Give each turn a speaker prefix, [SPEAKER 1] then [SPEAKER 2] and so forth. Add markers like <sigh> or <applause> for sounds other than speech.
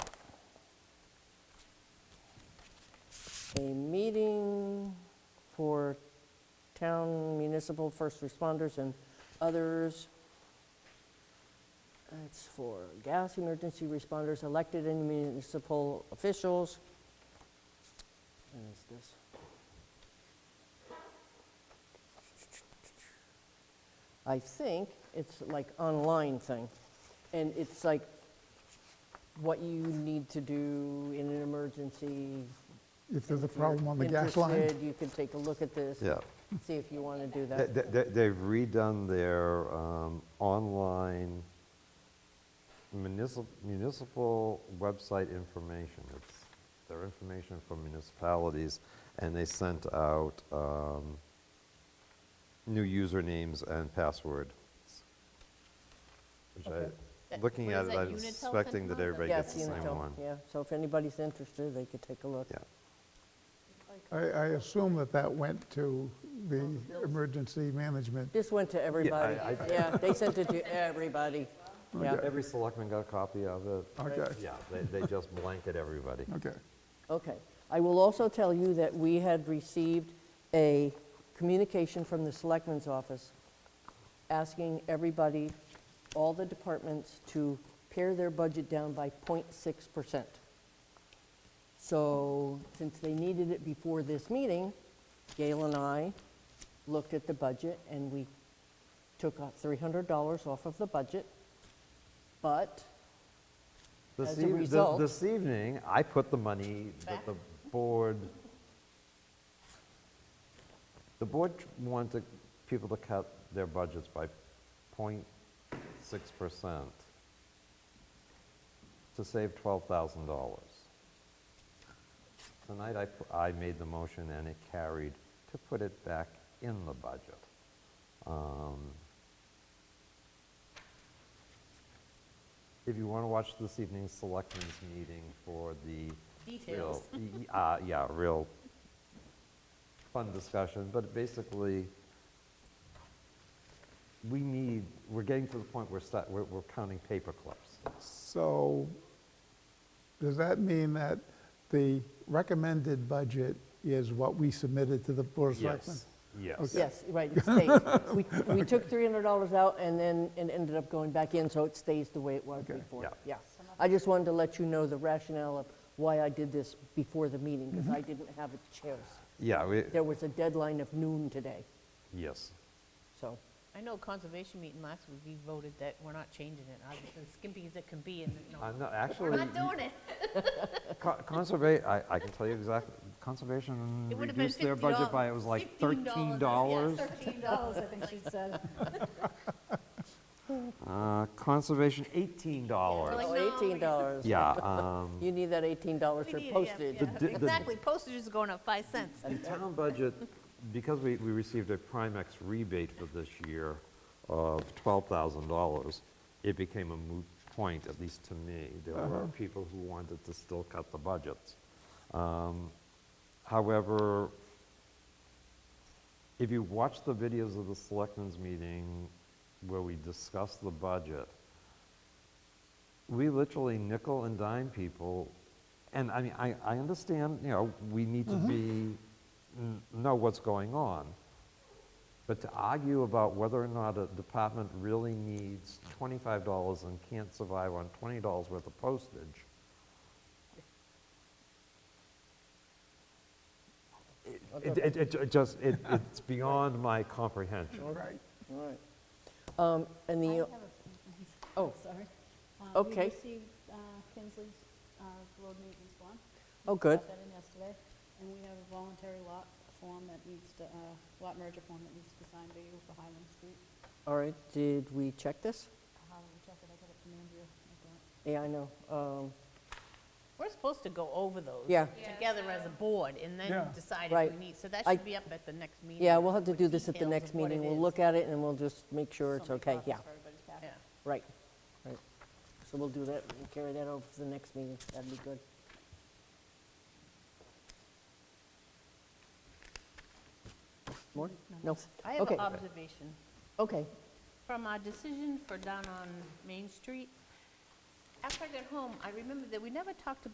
[SPEAKER 1] a meeting for town municipal first responders and others. It's for gas emergency responders, elected and municipal officials. And it's this. I think it's like online thing. And it's like what you need to do in an emergency.
[SPEAKER 2] If there's a
[SPEAKER 1] If you're
[SPEAKER 2] problem on the gas line,
[SPEAKER 1] interested, You can take a look at this.
[SPEAKER 3] Yeah.
[SPEAKER 1] See if you want to do
[SPEAKER 3] They-
[SPEAKER 1] that.
[SPEAKER 3] they- they- They've redone their um, online municipal, municipal website information. It's their information from municipalities, and they sent out um, new usernames and password. Which I, looking
[SPEAKER 4] What
[SPEAKER 3] at
[SPEAKER 4] is
[SPEAKER 3] it,
[SPEAKER 4] that,
[SPEAKER 3] I'm
[SPEAKER 4] Unitel sent them
[SPEAKER 3] expecting
[SPEAKER 4] out?
[SPEAKER 3] that everybody
[SPEAKER 1] Yeah,
[SPEAKER 3] gets
[SPEAKER 1] it's
[SPEAKER 3] the same
[SPEAKER 1] Unitil,
[SPEAKER 3] one.
[SPEAKER 1] Yeah, so if anybody's interested, they could take a look.
[SPEAKER 3] Yeah,
[SPEAKER 2] I, I assume that that went to the emergency management.
[SPEAKER 1] This went to everybody.
[SPEAKER 3] I-
[SPEAKER 1] Yeah, they sent it to
[SPEAKER 3] <laughs>
[SPEAKER 1] everybody. Yeah,
[SPEAKER 3] every selectman got a copy of it.
[SPEAKER 2] Okay,
[SPEAKER 3] Yeah, they, they just blanket everybody.
[SPEAKER 2] okay.
[SPEAKER 1] okay. I will also tell you that we had received a communication from the Selectmen's Office asking everybody, all the departments, to pare their budget down by 0.6%. So since they needed it before this meeting, Gail and I looked at the budget and we took out $300 off of the budget. But
[SPEAKER 3] This
[SPEAKER 1] As a
[SPEAKER 3] eve- th-
[SPEAKER 1] result-
[SPEAKER 3] This evening, I put the money that the board, the board wanted people to cut their budgets by 0.6% to save $12,000. Tonight, I, pu- I made the motion and it carried to put it back in the budget. Um, If you want to watch this evening's selectmen's meeting for the. real-
[SPEAKER 4] Details.
[SPEAKER 3] y- y- uh, Yeah, real fun discussion, but basically, we need, we're getting to the point where sta- we're we're counting paper clips.
[SPEAKER 2] So does that mean that the recommended budget is what we submitted to the Board of Selectmen?
[SPEAKER 3] Yes, yes.
[SPEAKER 1] Yes, right, it stays. We-
[SPEAKER 3] <laughs>
[SPEAKER 1] We took $300 out and then it ended up going back in, so it stays the way it was
[SPEAKER 2] Okay.
[SPEAKER 1] before.
[SPEAKER 3] Yeah.
[SPEAKER 1] Yeah. I just wanted to let you know the rationale of why I did this before the meeting, because
[SPEAKER 3] Mm-hmm.
[SPEAKER 1] I didn't have a chance.
[SPEAKER 3] Yeah, we,
[SPEAKER 1] There was a deadline of noon today,
[SPEAKER 3] yes.
[SPEAKER 1] so,
[SPEAKER 4] I know conservation meeting last week, we voted that we're not changing it, I was as skimpy as it can be, and, no,
[SPEAKER 3] I'm not,
[SPEAKER 4] we're
[SPEAKER 3] actually,
[SPEAKER 4] not doing it.
[SPEAKER 3] conservation, I, I can tell you exactly, conservation
[SPEAKER 4] It would have been
[SPEAKER 3] reduced their budget
[SPEAKER 4] $50
[SPEAKER 3] by, it was like
[SPEAKER 4] $15,
[SPEAKER 3] $13.
[SPEAKER 4] yeah,
[SPEAKER 5] $13, I think she
[SPEAKER 1] <laughs>
[SPEAKER 5] said.
[SPEAKER 3] Uh, Conservation,
[SPEAKER 4] We're like,
[SPEAKER 3] $18.
[SPEAKER 4] no,
[SPEAKER 1] Oh,
[SPEAKER 4] we need-
[SPEAKER 1] $18.
[SPEAKER 3] Yeah, um,
[SPEAKER 1] You need that $18
[SPEAKER 4] We
[SPEAKER 1] for
[SPEAKER 4] need it, yeah,
[SPEAKER 1] postage.
[SPEAKER 4] yeah.
[SPEAKER 3] The di- the-
[SPEAKER 4] Exactly, postage is going up five cents.
[SPEAKER 3] the town budget, because we, we received a Primex rebate for this year of $12,000, it became a moot point, at least to me. There were people who wanted to still cut the budgets. Um, However, if you watch the videos of the selectmen's meeting where we discuss the budget, we literally nickel and dime people. And I mean, I, I understand, you know, we need to be, n- know what's going on. But to argue about whether or not a department really needs $25 and can't survive on $20 worth of postage, it, it, it ju- just, it, it's beyond my comprehension.
[SPEAKER 2] Right.
[SPEAKER 1] All right. Um, And
[SPEAKER 5] I
[SPEAKER 1] the,
[SPEAKER 5] have a-
[SPEAKER 1] Oh.
[SPEAKER 5] Sorry. Uh,
[SPEAKER 1] Okay.
[SPEAKER 5] We received uh, Kinsley's uh, road maintenance bond.
[SPEAKER 1] oh, good,
[SPEAKER 5] Got that in yesterday, and we have a voluntary lot form that needs to, uh, lot merger form that needs to be signed by you for Highland Street.
[SPEAKER 1] all right, did we check this?
[SPEAKER 5] How do we check it? I got it from Andrea. I thought.
[SPEAKER 1] Yeah, I know. Um,
[SPEAKER 4] We're supposed to go over those.
[SPEAKER 1] Yeah.
[SPEAKER 4] Together as a board, and then
[SPEAKER 2] Yeah.
[SPEAKER 4] decide if
[SPEAKER 1] Right.
[SPEAKER 4] we need, so that
[SPEAKER 1] I-
[SPEAKER 4] should be up at the next meeting.
[SPEAKER 1] Yeah, we'll have to
[SPEAKER 4] with
[SPEAKER 1] do this at the
[SPEAKER 4] details
[SPEAKER 1] next
[SPEAKER 4] of what
[SPEAKER 1] meeting.
[SPEAKER 4] it
[SPEAKER 1] We'll
[SPEAKER 4] is.
[SPEAKER 1] look at it and we'll just make sure it's
[SPEAKER 5] So many
[SPEAKER 1] okay,
[SPEAKER 5] copies
[SPEAKER 1] yeah.
[SPEAKER 5] for everybody's packet.
[SPEAKER 4] Yeah.
[SPEAKER 1] Right, right. So we'll do that, we'll carry that over to the next meeting, that'd be good. More? No?
[SPEAKER 4] I have um,
[SPEAKER 1] Okay.
[SPEAKER 4] an observation.
[SPEAKER 1] Okay,
[SPEAKER 4] From our decision for down on Main Street, after I got home, I remembered that we never talked about.